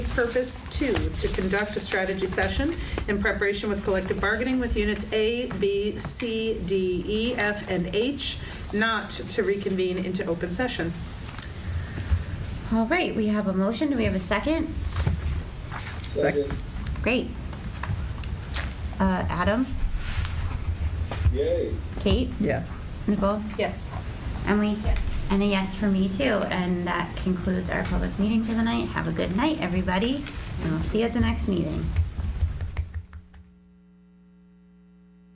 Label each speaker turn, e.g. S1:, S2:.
S1: Purpose two, to conduct a strategy session in preparation with collective bargaining with units A, B, C, D, E, F, and H, not to reconvene into open session.
S2: All right, we have a motion. Do we have a second?
S3: Second.
S2: Great. Uh, Adam,
S3: Yay.
S2: Kate,
S4: Yes.
S2: Nicole,
S1: Yes.
S2: Emily? And a yes for me too. And that concludes our public meeting for the night. Have a good night, everybody, and we'll see you at the next meeting.